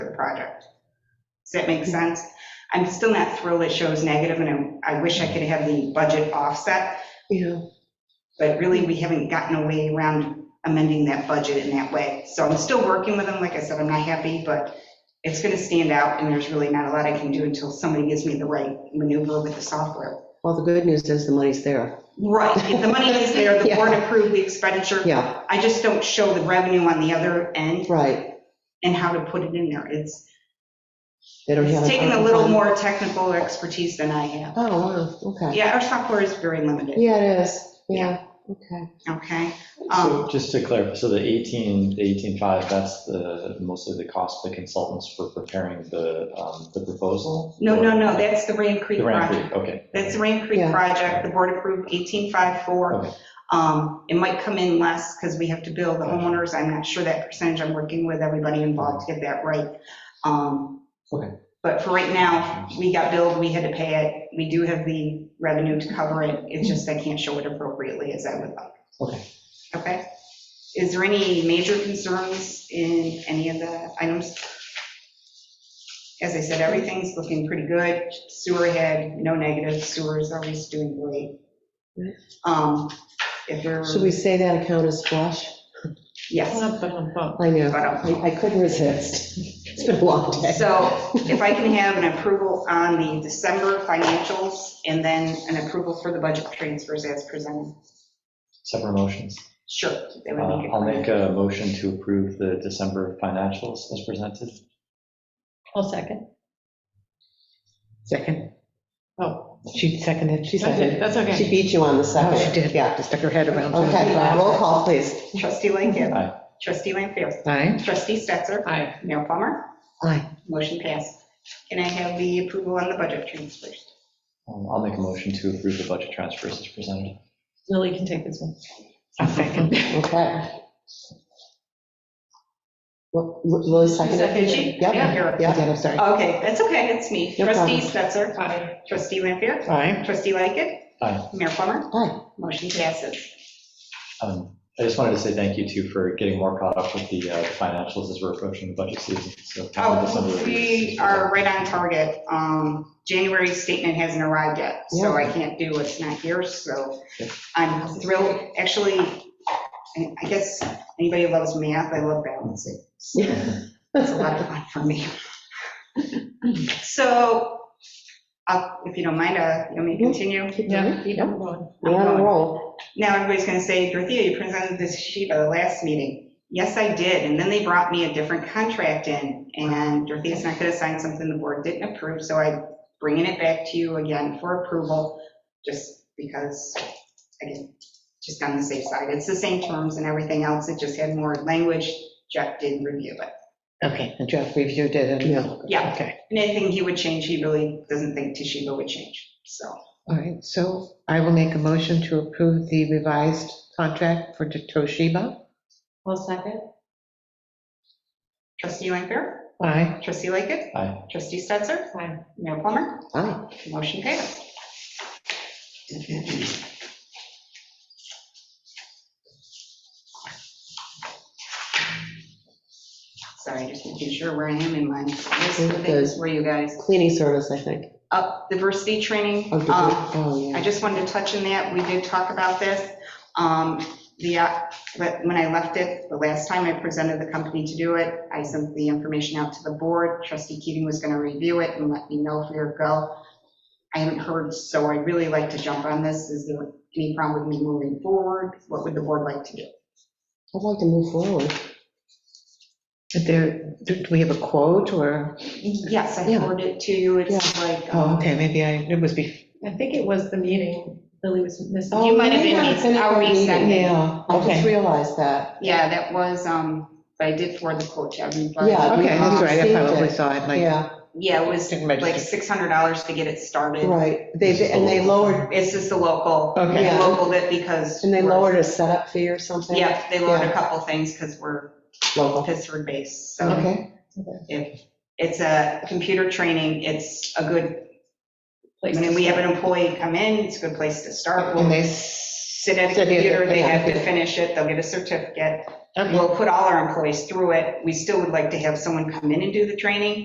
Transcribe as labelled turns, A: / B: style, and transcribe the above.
A: project. Does that make sense? I'm still not thrilled it shows negative, and I I wish I could have the budget offset,
B: Yeah.
A: but really, we haven't gotten a way around amending that budget in that way. So I'm still working with them, like I said, I'm not happy, but it's gonna stand out, and there's really not a lot I can do until somebody gives me the right maneuver with the software.
B: Well, the good news is the money's there.
A: Right, if the money is there, the board approved the expenditure,
B: Yeah,
A: I just don't show the revenue on the other end
B: right.
A: and how to put it in there. It's,
B: They don't have.
A: it's
B: an
A: taken a
B: ARPA
A: little
B: fund.
A: more technical expertise than I have.
B: Oh, wow, okay.
A: Yeah, our software is very limited,
B: Yeah, it is. Yeah, okay.
A: okay?
C: So
A: Um,
C: just to clarify, so the 18, the 18.5, that's the, mostly the cost of the consultants for preparing the, um, the proposal?
A: No, no, no, that's the Rain Creek
C: The ramp,
A: project.
C: okay.
A: That's the Rain Creek
B: Yeah.
A: project, the board approved
C: Okay.
A: 1854. Um, It might come in less because we have to bill the homeowners, I'm not sure that percentage, I'm working with everybody involved to get that right. Um,
C: Okay.
A: But for right now, we got billed, we had to pay it, we do have the revenue to cover it, it's just I can't show it appropriately as I would like.
C: Okay.
A: Okay? Is there any major concerns in any of the items? As I said, everything's looking pretty good. Sewer had no negative, sewer is always doing great. Um, If there,
B: Should we say that account is flush?
A: yes.
B: I know,
A: But,
B: I
A: um,
B: I couldn't resist. It's been a long day.
A: So if I can have an approval on the December financials and then an approval for the budget transfers as presented.
C: Separate motions.
A: Sure. that
C: Uh,
A: would be good.
C: I'll make a motion to approve the December financials as presented.
D: I'll second.
B: Second.
D: Oh,
B: She seconded, she
D: that's it,
B: seconded.
D: that's
B: She
D: okay.
B: beat you on the second.
D: Oh, she did.
B: Yeah.
D: Stuck her head around.
B: Okay, roll call, please.
A: Trustee Lightgev.
C: Aye.
A: Trustee Lampier.
B: Aye.
A: Trustee Stetser.
D: Aye.
A: Mayor Plummer.
B: Aye.
A: Motion passed. Can I have the approval on the budget transfers?
C: Um, I'll make a motion to approve the budget transfers as presented.
D: Lily can take this one. I'll second.
B: Okay. Well, Lily seconded?
D: Second.
A: She-
B: Yep.
A: Yeah, you're-
B: Yeah, I did, I'm sorry.
A: Okay, that's okay, that's me.
B: No problem.
A: Trustee Stetser.
D: Aye.
A: Trustee Lampier.
B: Aye.
A: Trustee Lightgev.
C: Aye.
A: Mayor Plummer.
B: Aye.
A: Motion passes.
C: Um, I just wanted to say thank you too for getting more caught up with the uh, financials as we're approaching the budget season. So happy
A: Oh,
C: December.
A: we are right on target. Um, January statement hasn't arrived yet, so I can't do what's not here, so
C: Yep.
A: I'm thrilled. Actually, I I guess anybody who loves math, I love balancing. It's a lot of fun for me. So, uh, if you don't mind, uh, you want me to continue?
D: Yeah, keep going.
B: We're on a roll.
A: Now everybody's going to say, Dorothea, you presented this sheet at the last meeting. Yes, I did, and then they brought me a different contract in, and Dorothea's not going to sign something the board didn't approve, so I'm bringing it back to you again for approval, just because, again, just on the safe side. It's the same terms and everything else, it just had more language. Jeff did review it.
B: Okay, and Jeff reviewed it and. Yeah.
A: Yeah.
B: Okay,
A: Anything he would change, he really doesn't think Toshiba would change, so.
B: all right, so I will make a motion to approve the revised contract for Toshiba.
D: I'll second.
A: Trustee Lanfair?
B: Aye.
A: Trustee Lightgev?
C: Aye.
A: Trustee Stetser?
D: Aye.
A: Mayor Plummer?
B: Aye.
A: Motion passed. Sorry, just making sure where I am in my list of things for you guys.
B: Cleaning service, I think.
A: Up, diversity training.
B: Oh, did you-
A: um,
B: oh,
A: I
B: yeah.
A: just wanted to touch on that, we did talk about this. Um, The, uh, but when I left it, the last time I presented the company to do it, I sent the information out to the board, trustee Keating was going to review it and let me know if we were go. I haven't heard, so I'd really like to jump on this, is there any problem with me moving forward? What would the board like to do?
B: I'd like to move forward.
E: There, do do we have a quote or,
A: Yes, I
B: Yeah.
A: forwarded it to you, it's like,
E: oh,
A: um,
E: okay, maybe I, it was before.
D: I think it was the meeting Lily was missing.
A: You might have been-
B: Oh, yeah,
A: I'll
B: it's in the
A: resend it.
B: meeting.
E: Yeah,
B: I just
E: okay.
B: realized that.
A: yeah, that was, um, but I did forward the quote to everybody. Um,
B: Yeah.
E: Okay, that's right, I
B: Received
E: probably
B: it.
E: saw it, like,
B: Yeah,
A: Yeah, it was
E: Didn't
A: like
E: register.
A: $600 to get it started.
B: right. They, and they lowered,
A: It's just the local,
E: Okay.
A: they
B: Yeah.
A: localed it because.
B: and they
A: we're-
B: lowered a setup fee or something?
A: Yeah, they lowered a
B: Yeah.
A: couple things because we're
B: Local.
A: Pittsburgh based, so
B: Okay,
A: it's a computer training, it's a good, I
D: Place to
A: mean, we have
D: start.
A: an employee come in, it's a good place to start.
E: and
A: We'll-
E: they
A: sit at a
B: Sit here,
A: computer, they
B: yeah.
A: have to finish it, they'll get a certificate.
B: Okay.
A: We'll put all our employees through it. We still would like to have someone come in and do the training,